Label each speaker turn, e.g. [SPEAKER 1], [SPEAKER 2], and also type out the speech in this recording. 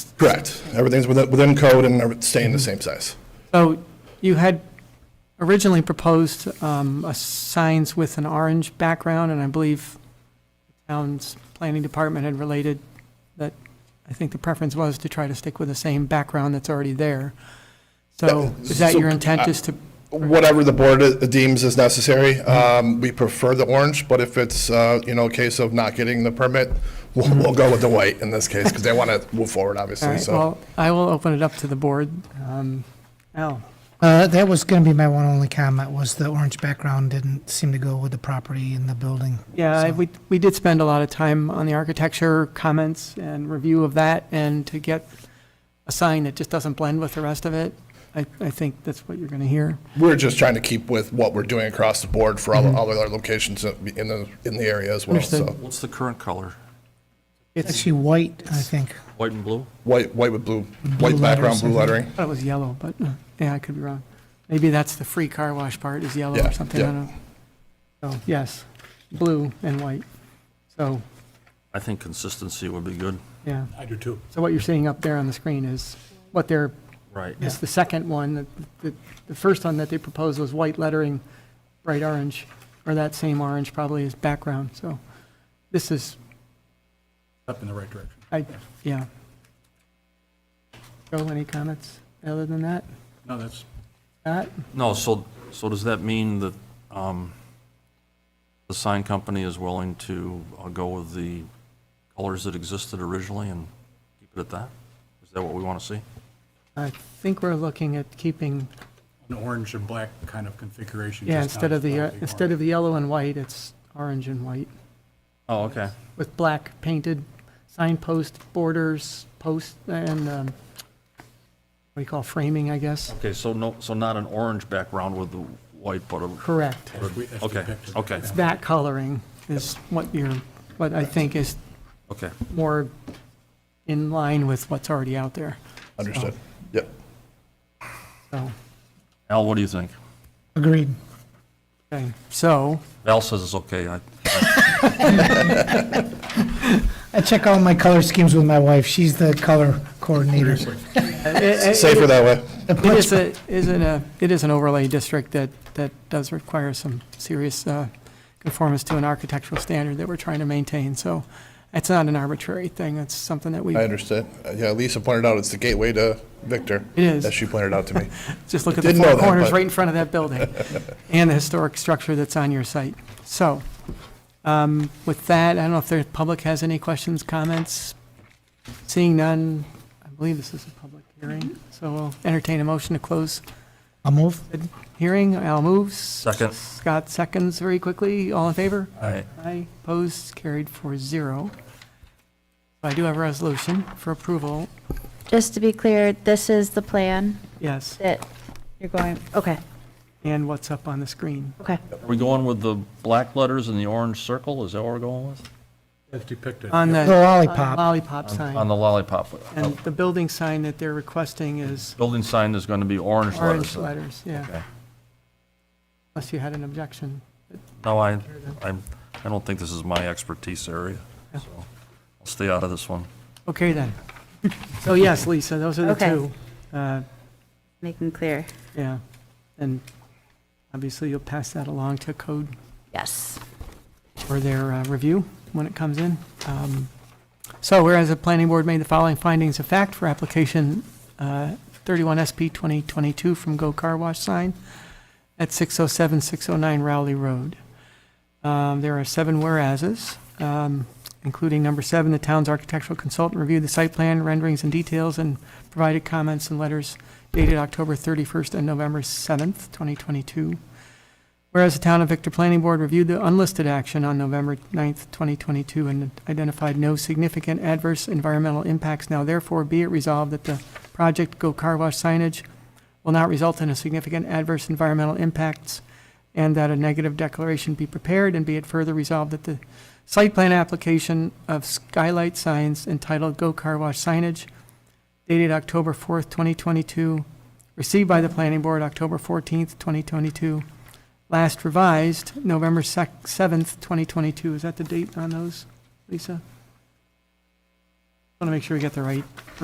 [SPEAKER 1] Correct. Everything's within, within code and every- staying the
[SPEAKER 2] Mm-hmm.
[SPEAKER 1] same size.
[SPEAKER 2] So you had originally proposed um, a signs with an orange background, and I believe the town's planning department had related that, I think the preference was to try to stick with the same background that's already there. So is that your intent, is to,
[SPEAKER 1] Whatever the board i- deems is necessary.
[SPEAKER 2] Mm-hmm.
[SPEAKER 1] Um, we prefer the orange, but if it's, uh, you know, a case of not getting the permit, we'll, we'll go with the white in this case, because they want to move forward,
[SPEAKER 2] Mm-hmm. all
[SPEAKER 1] obviously,
[SPEAKER 2] right,
[SPEAKER 1] so.
[SPEAKER 2] well, I will open it up to the board. Um, Al,
[SPEAKER 3] Uh, that was going to be my one only comment was the orange background didn't seem to go with the property and the building.
[SPEAKER 2] yeah, I-
[SPEAKER 3] So-
[SPEAKER 2] we, we did spend a lot of time on the architecture comments and review of that, and to get a sign that just doesn't blend with the rest of it, I, I think that's what you're going to hear.
[SPEAKER 1] We're just trying to keep with what we're doing across the board for all, all of our locations in the, in the area as well, so.
[SPEAKER 2] Mm-hmm. Understood.
[SPEAKER 4] What's the current color?
[SPEAKER 3] It's actually white, I think.
[SPEAKER 4] White and blue?
[SPEAKER 1] White, white with blue, white background,
[SPEAKER 3] letters,
[SPEAKER 1] blue
[SPEAKER 2] mm-hmm.
[SPEAKER 3] I think.
[SPEAKER 1] lettering.
[SPEAKER 2] thought it was yellow, but, uh, yeah, I could be wrong. Maybe that's the free car wash part is yellow
[SPEAKER 1] Yeah,
[SPEAKER 2] or something, I
[SPEAKER 1] yeah.
[SPEAKER 2] don't know. So, yes, blue and white. So,
[SPEAKER 4] I think consistency would be good.
[SPEAKER 2] yeah,
[SPEAKER 5] I do too.
[SPEAKER 2] so what you're seeing up there on the screen is what they're,
[SPEAKER 4] Right.
[SPEAKER 2] is the second one. The- The, the first one that they proposed was white lettering, bright orange, or that same orange probably is background, so this is,
[SPEAKER 5] Up in the right direction.
[SPEAKER 2] I, yeah. Joe, any comments other than that?
[SPEAKER 5] No, that's,
[SPEAKER 2] Pat?
[SPEAKER 4] No, so, so does that mean that um, the sign company is willing to uh, go with the colors that existed originally and keep it at that? Is that what we want to see?
[SPEAKER 2] I think we're looking at keeping
[SPEAKER 5] an orange and black kind of configuration.
[SPEAKER 2] Yeah,
[SPEAKER 5] just
[SPEAKER 2] instead
[SPEAKER 5] not
[SPEAKER 2] of the, uh,
[SPEAKER 5] slightly
[SPEAKER 2] instead of
[SPEAKER 5] orange.
[SPEAKER 2] the yellow and white, it's orange and white,
[SPEAKER 4] Oh, okay.
[SPEAKER 2] with black painted signpost, borders, post, and, um, what do you call framing, I guess?
[SPEAKER 4] Okay, so no, so not an orange background with the white, but a,
[SPEAKER 2] Correct.
[SPEAKER 5] As we- as
[SPEAKER 4] okay,
[SPEAKER 5] depicted.
[SPEAKER 4] okay,
[SPEAKER 2] That coloring is what you're, what I think is
[SPEAKER 4] okay.
[SPEAKER 2] more in line with what's already out there,
[SPEAKER 1] Understood. Yep.
[SPEAKER 2] so,
[SPEAKER 4] Al, what do you think?
[SPEAKER 3] Agreed.
[SPEAKER 2] okay, so,
[SPEAKER 4] Al says it's okay. I-
[SPEAKER 3] I check all my color schemes with my wife. She's the color coordinator.
[SPEAKER 1] Safer that way.
[SPEAKER 3] The
[SPEAKER 2] It
[SPEAKER 3] punch-
[SPEAKER 2] is a, isn't a, it is an overlay district that, that does require some serious uh, conformance to an architectural standard that we're trying to maintain, so it's not an arbitrary thing, it's something that we,
[SPEAKER 1] I understood. Uh, Yeah, Lisa pointed out it's the gateway to Victor.
[SPEAKER 2] It is.
[SPEAKER 1] As she pointed out to me.
[SPEAKER 2] just look at the
[SPEAKER 1] didn't know
[SPEAKER 2] four
[SPEAKER 1] that,
[SPEAKER 2] corners
[SPEAKER 1] but-
[SPEAKER 2] right in front of that building, and the historic structure that's on your site. So, um, with that, I don't know if the public has any questions, comments? Seeing none, I believe this is a public hearing, so we'll entertain a motion to close
[SPEAKER 3] I'll move.
[SPEAKER 2] hearing. Al moves.
[SPEAKER 4] Second.
[SPEAKER 2] Scott seconds very quickly. All in favor?
[SPEAKER 4] I-
[SPEAKER 2] Aye. Opposed, carried for zero. I do have a resolution for approval.
[SPEAKER 6] Just to be clear, this is the plan
[SPEAKER 2] Yes,
[SPEAKER 6] that you're going, okay,
[SPEAKER 2] and what's up on the screen.
[SPEAKER 6] okay.
[SPEAKER 4] Are we going with the black letters and the orange circle? Is that what we're going with?
[SPEAKER 5] As depicted.
[SPEAKER 2] On
[SPEAKER 3] The
[SPEAKER 2] the
[SPEAKER 3] lollipop.
[SPEAKER 2] lollipop
[SPEAKER 4] On
[SPEAKER 2] sign.
[SPEAKER 4] the lollipop.
[SPEAKER 2] And the building sign that they're requesting is
[SPEAKER 4] Building sign is going to be orange letters.
[SPEAKER 2] orange letters, yeah,
[SPEAKER 4] Okay.
[SPEAKER 2] unless you had an objection.
[SPEAKER 4] No, I, I'm, I don't think this is my expertise area, so I'll stay out of this one.
[SPEAKER 2] Okay, then. So yes, Lisa, those are the
[SPEAKER 6] Okay.
[SPEAKER 2] two. Uh,
[SPEAKER 6] Making clear,
[SPEAKER 2] Yeah, and obviously you'll pass that along to code
[SPEAKER 6] yes.
[SPEAKER 2] for their uh, review when it comes in. Um, So whereas the planning board made the following findings of fact for application uh, 31 SP 2022 from Go Car Wash Sign at 607-609 Rowley Road. Um, There are seven whereases, um, including number seven, the town's architectural consultant reviewed the site plan renderings and details and provided comments and letters dated October 31st and November 7th, 2022. Whereas the Town of Victor Planning Board reviewed the unlisted action on November 9th, 2022, and identified no significant adverse environmental impacts, now therefore be it resolved that the project Go Car Wash signage will not result in a significant adverse environmental impacts, and that a negative declaration be prepared, and be it further resolved that the site plan application of skylight signs entitled Go Car Wash signage dated October 4th, 2022, received by the Planning Board October 14th, 2022, last revised November sec- 7th, 2022. Is that the date on those, Lisa? Want to make sure we get the right